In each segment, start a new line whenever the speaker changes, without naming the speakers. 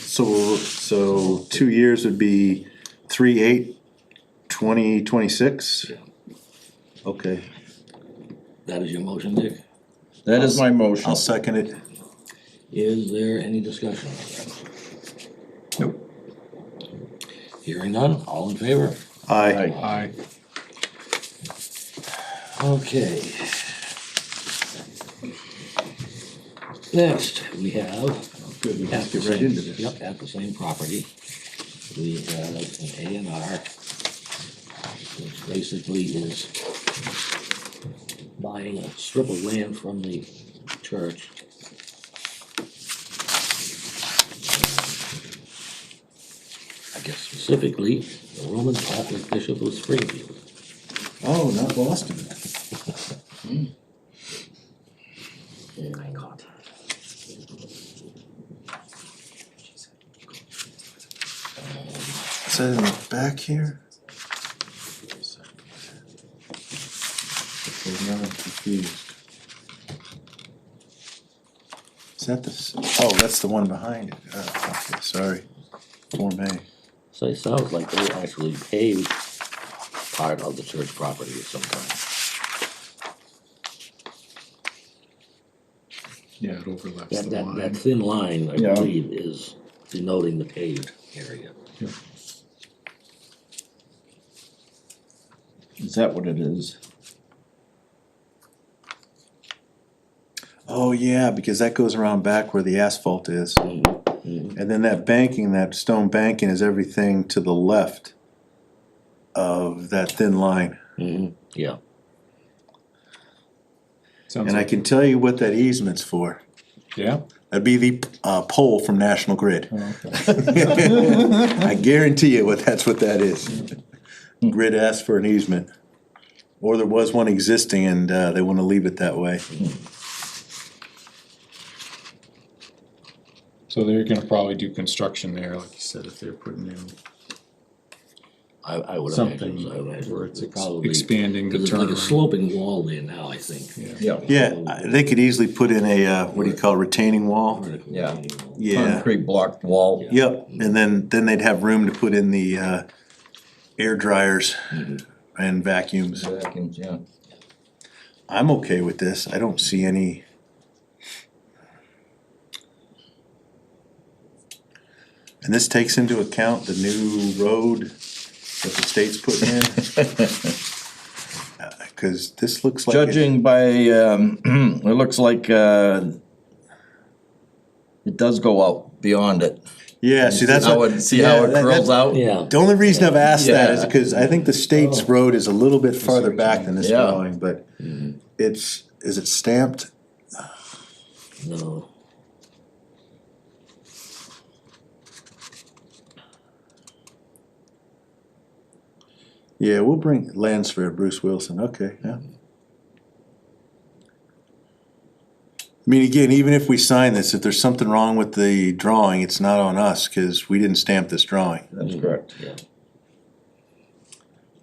So, so two years would be three, eight, twenty, twenty-six? Okay,
That is your motion, Dick.
That is my motion.
I'll second it.
Is there any discussion?
Nope.
Hearing none, all in favor?
Aye.
Aye.
Okay. Next, we have.
Oh, Good, we
at
just
the
get right
same-
into this.
Yep, at the same property, we have an A and R, which basically is buying a strip of land from the church. I guess specifically, the Roman Catholic Bishop of Springfield.
Oh, not Boston. Oh
I caught.
Is that in the back here? Okay, now I'm confused. Is that the, s- oh, that's the one behind it, oh, okay, sorry. Form A.
So it sounds like they actually paved part of the church property at some time.
Yeah, it overlaps
That, that,
the
that
line.
thin line, I
Yeah.
believe, is denoting the paved area.
Is that what it is?
Oh, yeah, because that goes around back where the asphalt is.
Mm-hmm.
And then that banking, that stone banking is everything to the left of that thin line.
Mm-hmm. Yeah,
Sounds
And I
like,
can tell you what that easement's for.
yeah?
That'd be the, uh, pole from National Grid.
Oh, okay.
I guarantee you what, that's what that is. Grid asked for an easement. Or there was one existing and, uh, they wanna leave it that way.
So they're gonna probably do construction there, like you said, if they're putting in
I, I would imagine,
something
so. I would imagine
where it's
it's
ex-
probably,
expanding the
there's like a
turnaround.
sloping wall there now, I think.
Yeah.
Yeah.
Yeah, I- they could easily put in a, uh, what do you call, it, retaining wall?
Vertical
Yeah.
retaining wall.
Yeah.
Concrete blocked wall.
Yeah.
Yep, and then, then they'd have room to put in the, uh, air dryers
Mm-hmm.
and vacuums.
Vacuums, yeah.
I'm okay with this, I don't see any. And this takes into account the new road that the state's putting in? Uh, Cause this looks like. it-
Judging by, um, it looks like, uh, it does go out beyond it.
Yeah, see, that's.
How
what-
it, see how
yeah,
it
that-
curls
that-
out?
Yeah,
The only reason I've asked that is
Yeah.
because I think the state's road is a little bit farther back than this
Yeah.
drawing,
Mm-hmm.
but it's, is it stamped?
no,
Yeah, we'll bring Lansford, Bruce Wilson, okay, yeah. I mean, again, even if we sign this, if there's something wrong with the drawing, it's not on us, cause we didn't stamp this drawing.
That's correct.
yeah.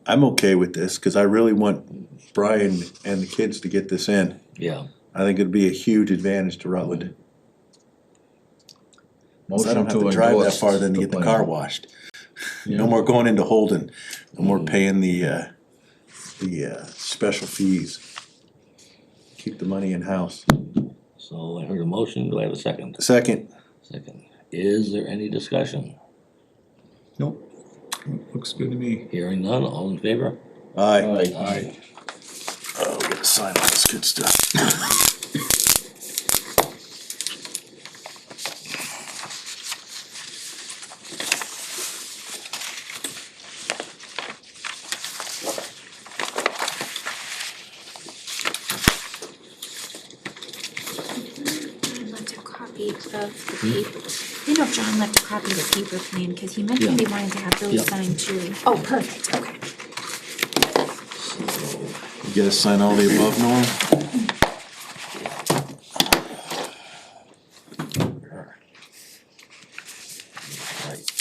I'm okay with this, cause I really want Brian and the kids to get this in.
Yeah,
I think it'd be a huge advantage to Rutland. 'Cause I
Motion
don't have
to
to drive that
endorse
far then to get the
plan.
car washed. No
Yeah.
more going into Holden, no more paying the, uh, the, uh, special fees. Keep the money in-house.
so I heard a motion, do I have a second?
Second,
Second, is there any discussion?
Nope, looks good to me.
Hearing none, all in favor?
aye.
Aye.
I,
Oh, we gotta sign all this good stuff.
John left a copy of the paper. You know, if John left a copy of the paper plan, cause he mentioned he
Yeah.
wanted to have
Yeah.
those signed too. Oh, perfect, okay.
So,
You gotta sign all the above, Norm?
Right.